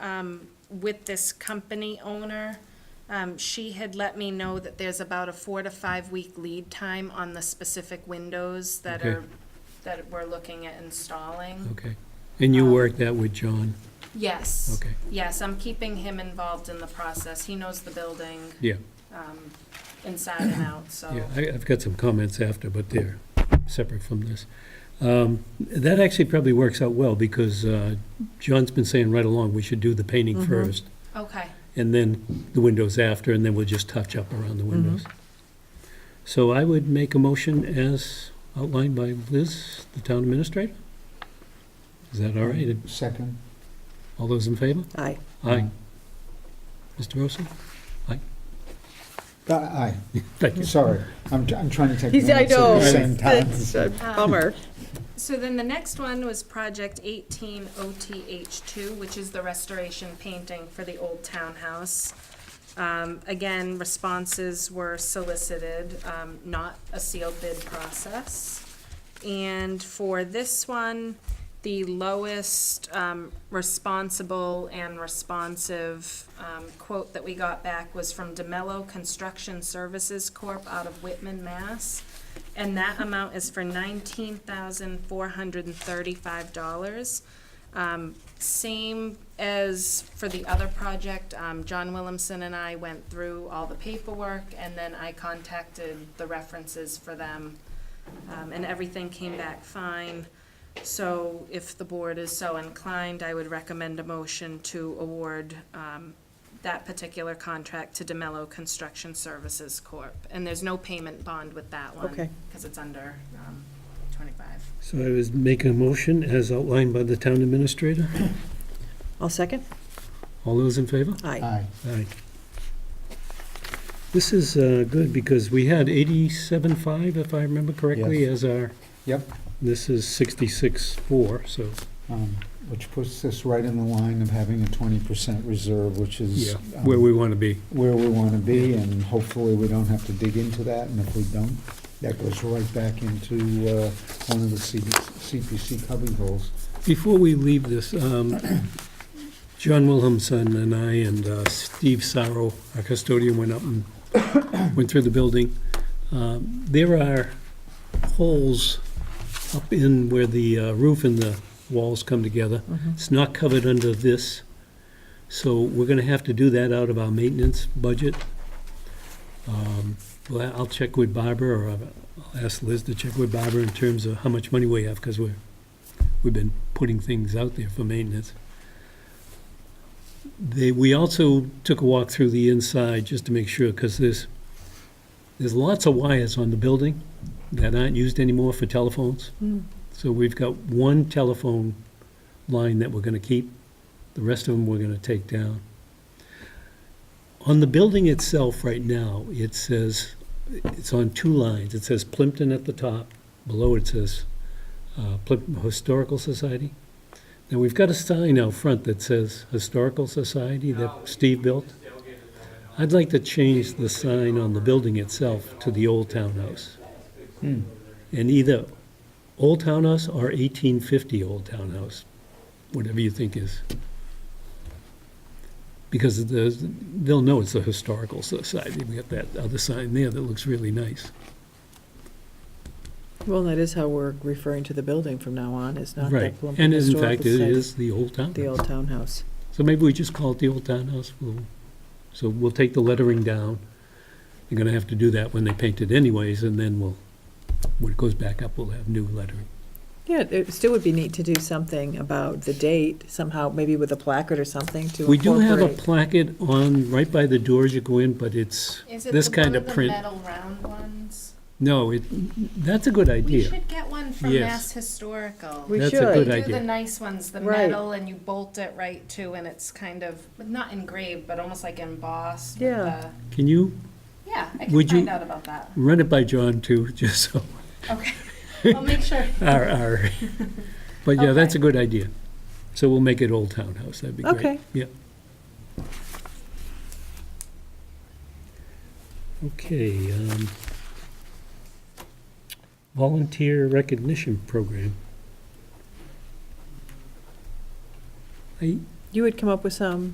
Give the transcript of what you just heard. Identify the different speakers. Speaker 1: um, with this company owner. Um, she had let me know that there's about a four to five week lead time on the specific windows that
Speaker 2: Okay.
Speaker 1: are, that we're looking at installing.
Speaker 2: Okay. And you worked that with John?
Speaker 1: Yes.
Speaker 2: Okay.
Speaker 1: Yes, I'm keeping him involved in the process. He knows the building
Speaker 2: Yeah,
Speaker 1: inside and out, so.
Speaker 2: yeah. I- I've got some comments after, but they're separate from this. Um, That actually probably works out well because uh, John's been saying right along, we should do the painting first
Speaker 1: Okay,
Speaker 2: and then the windows after, and then we'll just touch up around the windows. So I would make a motion as outlined by Liz, the town administrator. Is that all right?
Speaker 3: Second.
Speaker 2: All those in favor?
Speaker 4: Aye.
Speaker 2: Aye. Mr. Rosso?
Speaker 3: Uh, Aye,
Speaker 2: Thank you.
Speaker 3: sorry, I'm, I'm trying to take
Speaker 4: He's, I
Speaker 3: minutes at
Speaker 4: know.
Speaker 3: the same time.
Speaker 4: That's a
Speaker 1: Um,
Speaker 4: bummer.
Speaker 1: so then the next one was project eighteen OTH two, which is the restoration painting for the old townhouse. Um, again, responses were solicited, um, not a sealed bid process. And for this one, the lowest, um, responsible and responsive, um, quote that we got back was from DeMello Construction Services Corp. out of Whitman, Mass. And that amount is for nineteen thousand four hundred and thirty-five dollars. Um, same as for the other project, um, John Williamson and I went through all the paperwork, and then I contacted the references for them, um, and everything came back fine. So if the board is so inclined, I would recommend a motion to award, um, that particular contract to DeMello Construction Services Corp. And there's no payment bond with that one.
Speaker 4: Okay.
Speaker 1: Because it's under, um, twenty-five.
Speaker 2: So I was making a motion as outlined by the town administrator.
Speaker 4: I'll second.
Speaker 2: All those in favor?
Speaker 4: Aye.
Speaker 3: Aye,
Speaker 2: Aye. This is uh, good because we had 87.5, if I remember correctly,
Speaker 3: Yes.
Speaker 2: as our,
Speaker 3: yep,
Speaker 2: this is 66.4, so,
Speaker 3: um, which puts us right in the line of having a twenty percent reserve, which is
Speaker 2: yeah,
Speaker 3: um,
Speaker 2: where we want to be.
Speaker 3: where we want to be, and hopefully we don't have to dig into that, and if we don't, that goes right back into uh, one of the CB CPC cubby holes.
Speaker 2: Before we leave this, um, John Wilhamson and I and uh, Steve Sorrow, our custodian, went up and went through the building. Um, There are holes up in where the uh, roof and the walls come together. It's not covered under this, so we're gonna have to do that out of our maintenance budget. Um, Well, I'll check with Barbara, or I'll I'll ask Liz to check with Barbara in terms of how much money we have, because we're we've been putting things out there for maintenance. They, we also took a walk through the inside just to make sure, because there's, there's lots of wires on the building that aren't used anymore for telephones. So we've got one telephone line that we're gonna keep, the rest of them we're gonna take down. On the building itself right now, it says, it's on two lines. It says Plimpton at the top, below it says uh, Plimpton Historical Society. Now, we've got a sign out front that says Historical Society that Steve built. I'd like to change the sign on the building itself to the Old Townhouse. Hmm. And either Old Townhouse or 1850 Old Townhouse, whatever you think is. Because the- they'll know it's the Historical Society. We got that other sign there that looks really nice.
Speaker 4: Well, that is how we're referring to the building from now on, is not the
Speaker 2: Right.
Speaker 4: Plumpton
Speaker 2: And in fact,
Speaker 4: Historical
Speaker 2: it
Speaker 4: Society,
Speaker 2: is the Old Townhouse.
Speaker 4: the old townhouse.
Speaker 2: So maybe we just call it the Old Townhouse. We'll, so we'll take the lettering down. They're gonna have to do that when they paint it anyways, and then we'll, when it goes back up, we'll have new lettering.
Speaker 4: Yeah, it still would be neat to do something about the date somehow, maybe with a placard or something to
Speaker 2: We do have a
Speaker 4: incorporate.
Speaker 2: placket on, right by the doors you go in, but it's,
Speaker 1: Is it
Speaker 2: this
Speaker 1: the- one
Speaker 2: kind
Speaker 1: of
Speaker 2: of
Speaker 1: the
Speaker 2: print.
Speaker 1: metal round ones?
Speaker 2: No, it, that's a good
Speaker 1: We
Speaker 2: idea.
Speaker 1: should get one from
Speaker 2: Yes.
Speaker 1: Mass Historical.
Speaker 4: We
Speaker 2: That's a
Speaker 4: should.
Speaker 2: good
Speaker 1: They do the
Speaker 2: idea.
Speaker 1: nice ones, the
Speaker 4: Right.
Speaker 1: metal, and you bolt it right to, and it's kind of, not engraved, but almost like embossed. with
Speaker 4: Yeah.
Speaker 1: the-
Speaker 2: Can you
Speaker 1: Yeah, I can
Speaker 2: Would you-
Speaker 1: find out about that.
Speaker 2: run it by John too, just so,
Speaker 1: Okay, I'll make sure.
Speaker 2: our, our, but yeah, that's
Speaker 1: Okay.
Speaker 2: a good idea. So we'll make it Old Townhouse, that'd be great.
Speaker 4: Okay.
Speaker 2: Yeah. Okay, um, volunteer recognition program. I,
Speaker 4: You would come up with some